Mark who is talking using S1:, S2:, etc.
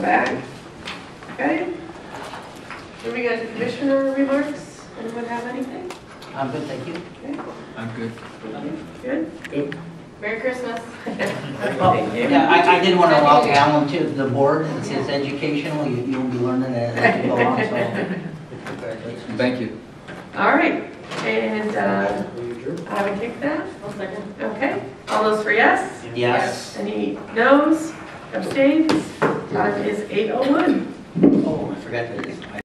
S1: back. Okay. Moving on to commissioner remarks. Anyone have anything?
S2: I'm good, thank you.
S3: I'm good.
S1: Good? Merry Christmas.
S2: Well, Yeah, I, I did want to welcome Alan to the board. It's it's educational, you, you'll be learning it as you go along, so congratulations.
S3: Thank you.
S1: All right, and uh, I would kick that. Okay, all those for yes?
S2: Yes.
S1: Any noes, abstains? Time is 8:01.
S2: Oh, I forgot to,